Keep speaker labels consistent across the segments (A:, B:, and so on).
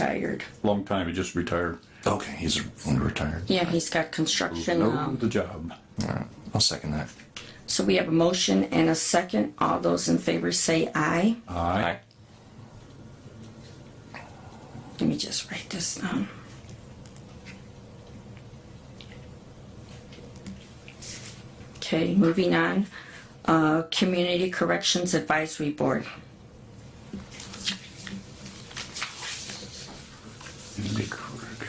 A: retired.
B: Long time, he just retired.
C: Okay, he's retired.
A: Yeah, he's got construction.
B: No,
A: um,
B: the job.
C: All right, I'll second that.
A: So we have a motion and a second. All those in favor say aye.
B: Aye.
A: Let me just write this down. Okay, moving on. Uh, Community Corrections Advisory Board.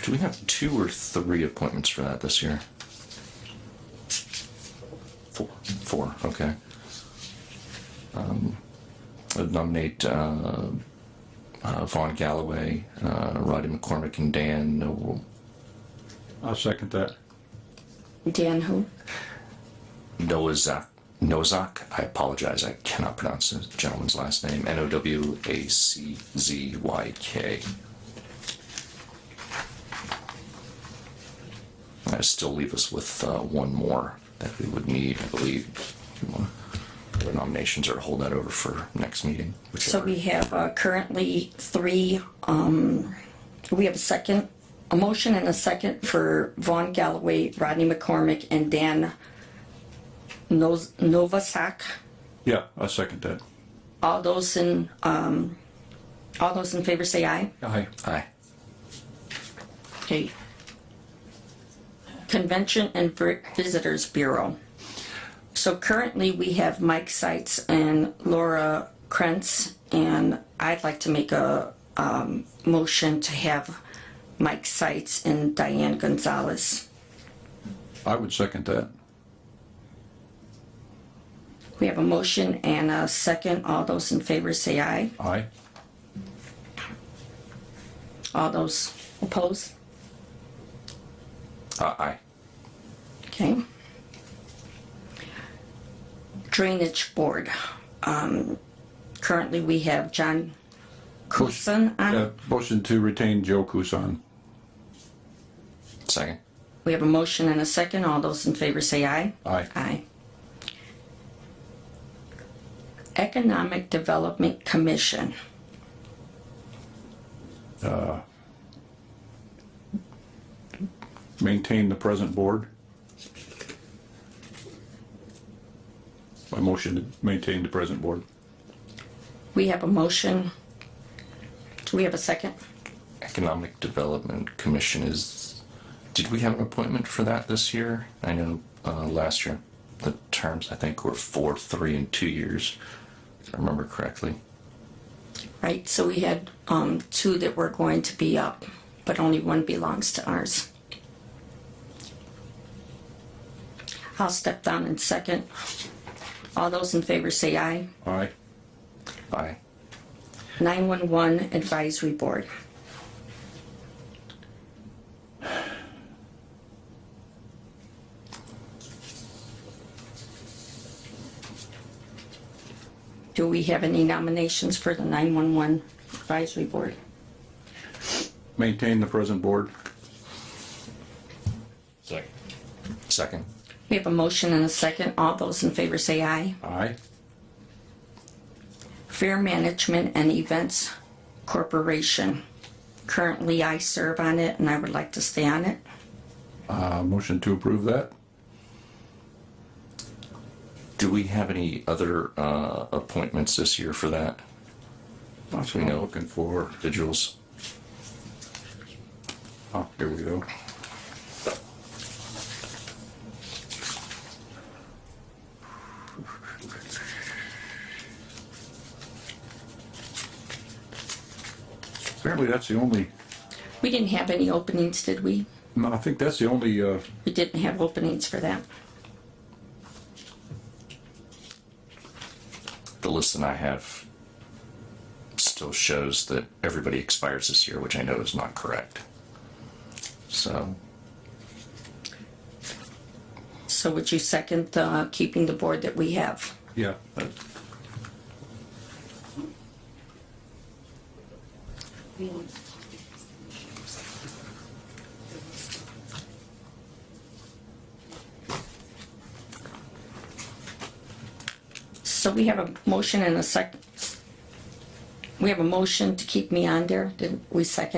C: Do we have two or three appointments for that this year? Four. Four, okay. Um, I'd nominate uh, uh, Vaughn Galloway, uh, Roddy McCormick, and Dan Noble.
B: I'll second that.
A: Dan who?
C: Nozak. Nozak. I apologize. I cannot pronounce the gentleman's last name. N O W A C Z Y K. I still leave us with uh, one more that we would need, I believe. The nominations are hold that over for next meeting.
A: So
C: whichever.
A: we have uh, currently three, um, we have a second, a motion and a second for Vaughn Galloway, Rodney McCormick, and Dan Nos- Novasak.
B: Yeah, I'll second that.
A: All those in, um, all those in favor say aye.
B: Aye.
C: Aye.
A: Okay. Convention and Vi- Visitors Bureau. So currently, we have Mike Seitz and Laura Krentz, and I'd like to make a um, motion to have Mike Seitz and Diane Gonzalez.
B: I would second that.
A: We have a motion and a second. All those in favor say aye.
B: Aye.
A: All those opposed?
C: Uh, aye.
A: Okay. Drainage Board. Um, Currently, we have John Coulson
B: Yeah,
A: on.
B: Uh, motion to retain Joe Kusan.
C: Second.
A: We have a motion and a second. All those in favor say aye.
B: Aye.
A: Aye. Economic Development Commission.
B: Maintain the present board. My motion to maintain the present board.
A: We have a motion. Do we have a second?
C: Economic Development Commission is, did we have an appointment for that this year? I know uh, last year, the terms I think were four, three, and two years, if I remember correctly.
A: Right, so we had um, two that were going to be up, but only one belongs to ours. I'll step down in second. All those in favor say aye.
B: Aye.
C: Aye.
A: 911 Advisory Board. Do we have any nominations for the 911 Advisory Board?
B: Maintain the present board.
C: Second. Second.
A: We have a motion and a second. All those in favor say aye.
B: Aye.
A: Fair Management and Events Corporation. Currently, I serve on it and I would like to stay on it.
B: Uh, motion to approve that.
C: Do we have any other uh, appointments this year for that?
B: That's what I'm looking for.
C: Individuals?
B: Oh, here we go. Apparently, that's the only,
A: We didn't have any openings, did we?
B: no, I think that's the only, uh,
A: We didn't have openings for that.
C: The list that I have still shows that everybody expires this year, which I know is not correct. So,
A: So would you second uh, keeping the board that we have?
B: yeah, that-
A: So we have a motion and a sec, we have a motion to keep me on there. Did we second?